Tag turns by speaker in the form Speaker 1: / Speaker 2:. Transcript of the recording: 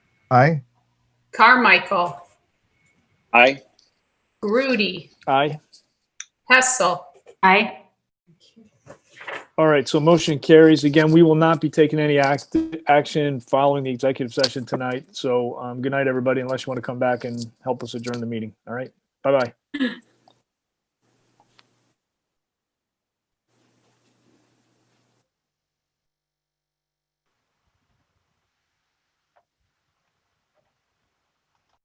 Speaker 1: Aye.
Speaker 2: Carmichael,
Speaker 3: Aye.
Speaker 2: Grudy,
Speaker 4: Aye.
Speaker 2: Hessel.
Speaker 5: Aye.
Speaker 4: All right, so motion carries. Again, we will not be taking any act, action following the executive session tonight. So, um, good night, everybody, unless you want to come back and help us adjourn the meeting. All right, bye-bye.